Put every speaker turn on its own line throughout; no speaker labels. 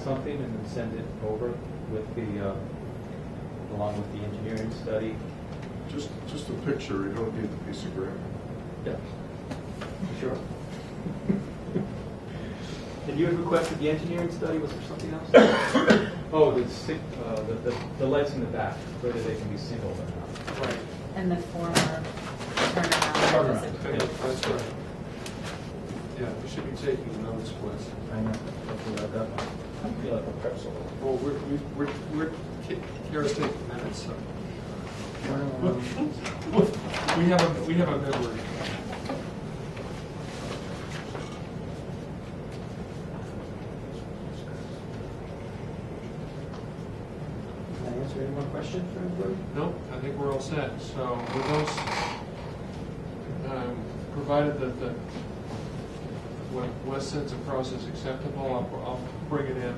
something and then send it over with the, uh, along with the engineering study?
Just, just a picture, you don't need the piece of granite.
Yeah. Sure. And you had requested the engineering study, was there something else? Oh, the sick, uh, the, the- the lights in the back, whether they can be singled or not.
Right.
And the former turnaround was
Turnaround.
Okay,
approved.
That's right. Yeah, we should be taking notes, Wes.
I know, I forgot that one.
I feel like a pretzel.
Well, we're, we- we're, we're, Ki- Kara's taking minutes, so. We have a, we have a memory.
Can I answer any more questions for everybody?
Nope, I think we're all set. So with those, um, provided that the, what Wes sends across is acceptable, I'll, I'll bring it in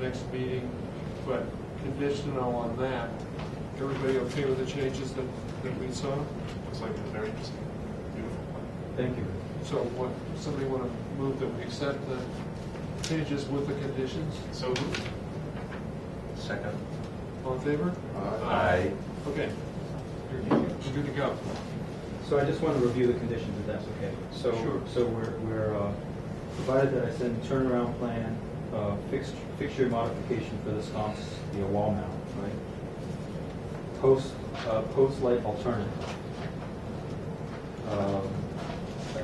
next meeting, but conditional on that. Everybody okay with the changes that, that we saw?
Looks like a very interesting, beautiful plan.
Thank you.
So what, somebody want to move that we accept the changes with the conditions?
So
Second.
All in favor?
Aye.
Okay. You're you're good to go.
So I just want to review the conditions, if that's okay. So,
Sure.
so we're, we're, uh, provided that I send turnaround plan, uh, fixed, fixture modification for the sconce via wall mount, right? Post, uh, post light alternative. Um,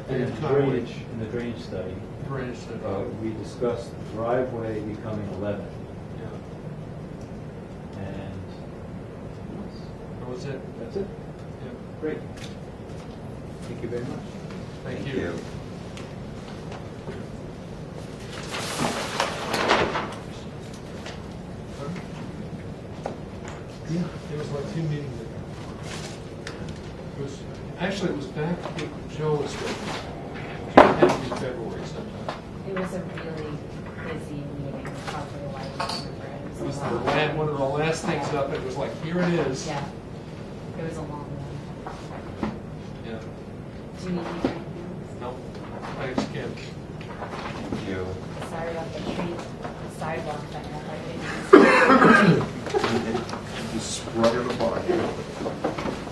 And in drainage, in the drainage study,
Drainage study.
uh, we discussed driveway becoming eleven,
Yeah,
and
that was it.
that's it.
Yeah.
Great. Thank you very much.
Thank you. Yeah, it was like two meetings ago. It was, actually, it was back, when Joe was with us. It had to be February sometime.
It was a really busy meeting, probably why I remember it.
It was
a
the
long
last,
one.
one of the last things up, it was like, here it is.
Yeah, it was a long one.
Yeah.
Do you need anything
No, thanks, Ken.
Thank you.
else? Sorry about the tree sidewalk thing, I didn't.
You sprung the body.